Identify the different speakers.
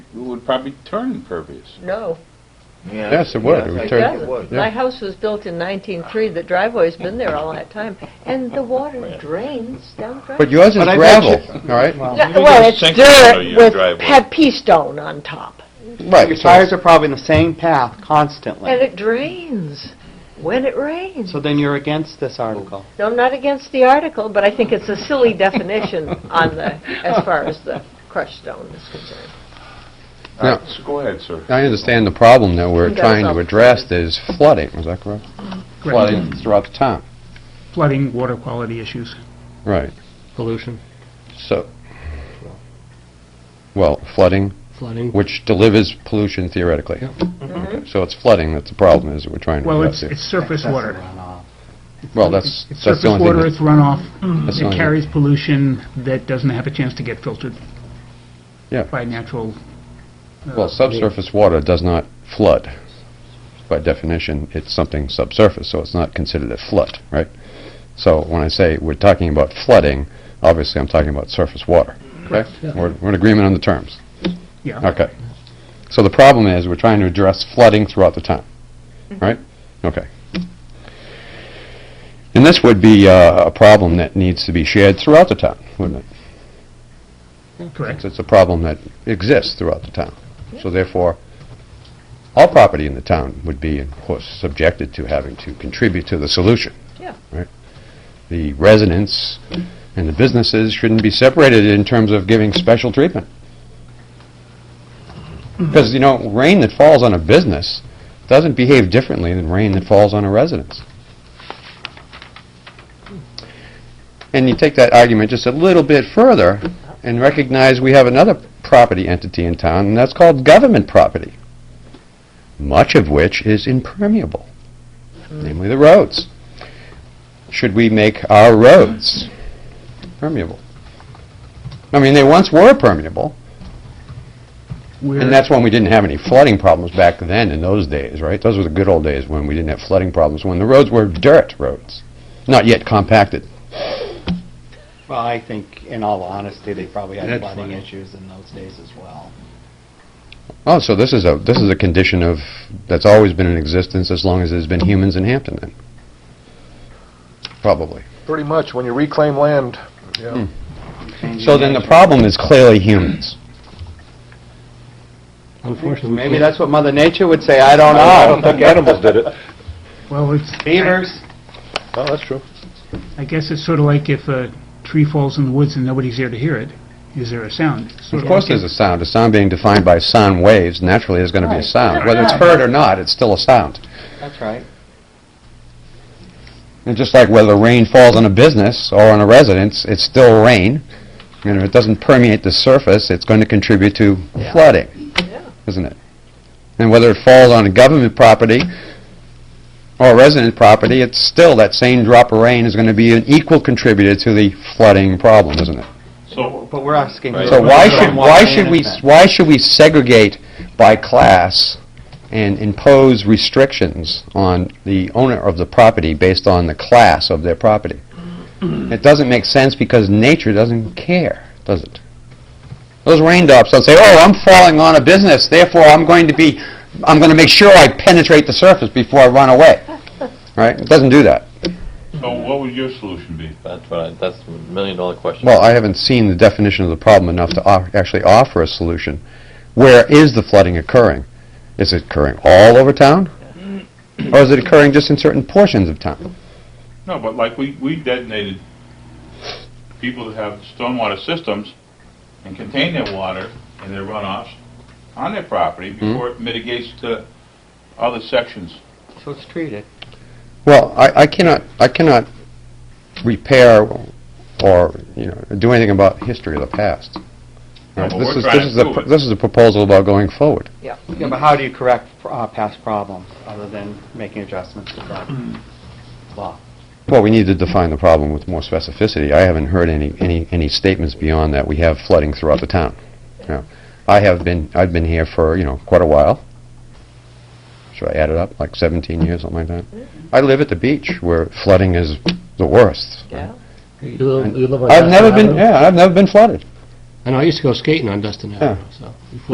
Speaker 1: would probably turn impervious.
Speaker 2: No,
Speaker 3: Yeah.
Speaker 4: Yes, it would.
Speaker 3: Yes,
Speaker 4: It would
Speaker 3: I
Speaker 2: it
Speaker 4: turn-
Speaker 3: think
Speaker 4: Terrible.
Speaker 2: doesn't.
Speaker 4: Yeah.
Speaker 2: My house was built in 1903, the driveway's been there all that time, and the water drains down
Speaker 4: But
Speaker 2: driveway.
Speaker 4: yours is
Speaker 3: But I bet
Speaker 4: gravel, all right?
Speaker 2: Yeah,
Speaker 1: You
Speaker 2: Well,
Speaker 1: can
Speaker 2: it's
Speaker 1: sink it under
Speaker 2: dirt
Speaker 1: your
Speaker 2: with,
Speaker 1: driveway.
Speaker 2: had pea stone on top,
Speaker 4: Right.
Speaker 3: Your
Speaker 4: so
Speaker 3: tires are probably in the same path constantly.
Speaker 2: and it drains when it rains.
Speaker 3: So then you're against this article.
Speaker 2: No, I'm not against the article, but I think it's a silly definition on the, as far as the crushed stone is concerned.
Speaker 1: All right, so go ahead, sir.
Speaker 4: I understand the problem that we're
Speaker 2: You got
Speaker 4: trying to
Speaker 2: yourself
Speaker 4: address is flooding, is that correct?
Speaker 5: Correct.
Speaker 4: Flooding throughout the town,
Speaker 5: Flooding, water quality issues.
Speaker 4: right.
Speaker 6: Pollution,
Speaker 4: So, well, flooding,
Speaker 6: flooding.
Speaker 4: which delivers pollution theoretically.
Speaker 6: Yeah.
Speaker 4: Okay, So it's flooding that's the problem, is that we're trying to
Speaker 5: Well,
Speaker 4: address
Speaker 5: it's
Speaker 4: here.
Speaker 5: it's surface
Speaker 3: Excessive
Speaker 5: water.
Speaker 3: runoff.
Speaker 4: Well, that's, that's the
Speaker 5: It's surface
Speaker 4: only thing.
Speaker 5: water, it's runoff.
Speaker 4: that's the
Speaker 5: It
Speaker 4: only-
Speaker 5: carries pollution that doesn't have a chance to get filtered
Speaker 4: Yeah.
Speaker 5: by natural,
Speaker 4: Well, subsurface water does not flood. By definition, it's something subsurface, so it's not considered a flood, right? So when I say we're talking about flooding, obviously I'm talking about surface water, correct? We're we're in agreement on the terms.
Speaker 5: yeah.
Speaker 4: Okay. So the problem is, we're trying to address flooding throughout the town, right? Okay. And this would be uh, a problem that needs to be shared throughout the town, wouldn't it?
Speaker 5: Correct.
Speaker 4: It's- It's a problem that exists throughout the town. So therefore, all property in the town would be, of course, subjected to having to contribute to the solution.
Speaker 2: Yeah.
Speaker 4: Right? The residents and the businesses shouldn't be separated in terms of giving special treatment. Because, you know, rain that falls on a business doesn't behave differently than rain that falls on a residence. And you take that argument just a little bit further and recognize we have another property entity in town, and that's called government property, much of which is impermeable, namely the roads. Should we make our roads permeable? I mean, they once were permeable,
Speaker 5: We're-
Speaker 4: and that's when we didn't have any flooding problems back then in those days, right? Those were the good old days when we didn't have flooding problems, when the roads were dirt roads, not yet compacted.
Speaker 3: Well, I think, in all honesty, they probably had
Speaker 6: That's
Speaker 3: flooding
Speaker 6: flooding.
Speaker 3: issues in those days as well.
Speaker 4: Oh, so this is a, this is a condition of, that's always been in existence as long as there's been humans in Hampton then? Probably.
Speaker 7: Pretty much, when you reclaim land, yeah.
Speaker 4: So then the problem is clearly humans.
Speaker 6: Unfortunately, we
Speaker 3: Maybe
Speaker 6: can't-
Speaker 3: that's what Mother Nature would say, I don't know.
Speaker 7: Oh, I don't think animals did it.
Speaker 5: Well, it's,
Speaker 3: Beavers.
Speaker 7: Oh, that's true.
Speaker 5: I guess it's sort of like if a tree falls in the woods and nobody's there to hear it, is there a sound? It's
Speaker 4: Of
Speaker 5: sort
Speaker 4: course
Speaker 5: like
Speaker 4: there's
Speaker 5: if-
Speaker 4: a sound. A sound being defined by sound waves naturally is going to be a
Speaker 3: Right.
Speaker 4: sound. Whether it's heard or not, it's still a sound.
Speaker 3: That's right.
Speaker 4: And just like whether rain falls on a business or on a residence, it's still rain. And if it doesn't permeate the surface, it's going to contribute to flooding, isn't it? And whether it falls on a government property or a resident property, it's still, that same drop of rain is going to be an equal contributor to the flooding problem, isn't it?
Speaker 1: So,
Speaker 3: But we're asking.
Speaker 1: Right.
Speaker 4: So why should,
Speaker 3: Stormwater
Speaker 4: why should we,
Speaker 3: management.
Speaker 4: why should we segregate by class and impose restrictions on the owner of the property based on the class of their property? It doesn't make sense because nature doesn't care, does it? Those raindrops don't say, oh, I'm falling on a business, therefore I'm going to be, I'm going to make sure I penetrate the surface before I run away, right? It doesn't do that.
Speaker 1: so what would your solution be?
Speaker 8: That's what I, that's the million dollar question.
Speaker 4: Well, I haven't seen the definition of the problem enough to off- actually offer a solution. Where is the flooding occurring? Is it occurring all over town? Or is it occurring just in certain portions of town?
Speaker 1: No, but like, we, we detonated people that have stormwater systems and contain their water and their runoffs on their
Speaker 7: Hmm?
Speaker 1: property before it mitigates to other sections.
Speaker 3: So it's treated.
Speaker 4: Well, I I cannot, I cannot repair or, you know, do anything about history of the past.
Speaker 1: No,
Speaker 4: Right?
Speaker 1: but
Speaker 4: This
Speaker 1: we're
Speaker 4: is-
Speaker 1: trying
Speaker 4: this
Speaker 1: to
Speaker 4: is a
Speaker 1: prove
Speaker 4: pro-
Speaker 1: it.
Speaker 4: This is a proposal about going forward.
Speaker 3: Yeah, but how do you correct uh, past problems, other than making adjustments to the law?
Speaker 4: Well, we need to define the problem with more specificity. I haven't heard any, any, any statements beyond that we have flooding throughout the town. You know, I have been, I've been here for, you know, quite a while. Should I add it up, like 17 years, something like that? I live at the beach where flooding is the worst.
Speaker 2: Yeah.
Speaker 6: You live- you live on
Speaker 4: I've
Speaker 6: Dustin
Speaker 4: never been,
Speaker 6: Avenue?
Speaker 4: yeah, I've never been flooded.
Speaker 6: I know, I used to go skating on Dustin
Speaker 4: Yeah.
Speaker 6: Avenue, so.